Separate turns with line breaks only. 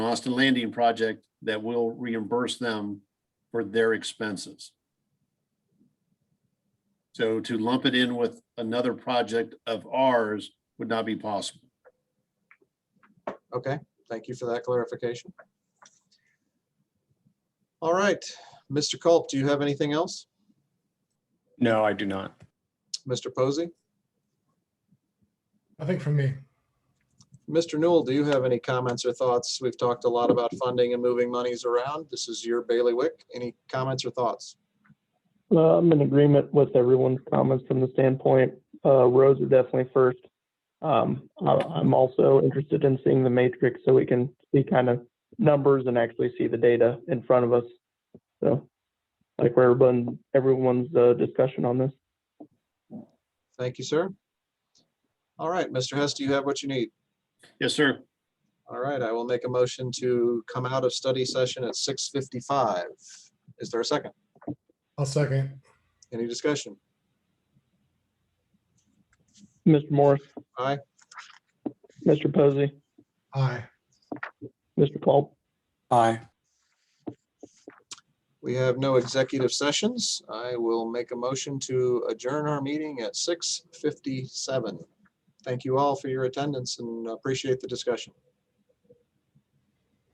Austin Landing project that will reimburse them for their expenses. So to lump it in with another project of ours would not be possible.
Okay, thank you for that clarification. All right, Mr. Culp, do you have anything else?
No, I do not.
Mr. Posey?
Nothing from me.
Mr. Newell, do you have any comments or thoughts? We've talked a lot about funding and moving monies around. This is your bailiwick. Any comments or thoughts?
Uh, I'm in agreement with everyone's comments from the standpoint, uh, roads are definitely first. Um, I, I'm also interested in seeing the matrix so we can see kind of numbers and actually see the data in front of us. So, like where everyone, everyone's, uh, discussion on this.
Thank you, sir. All right, Mr. Hess, do you have what you need?
Yes, sir.
All right, I will make a motion to come out of study session at 6:55. Is there a second?
I'll second.
Any discussion?
Mr. Morris.
Aye.
Mr. Posey,
Aye.
Mr. Culp,
Aye.
We have no executive sessions. I will make a motion to adjourn our meeting at 6:57. Thank you all for your attendance and appreciate the discussion.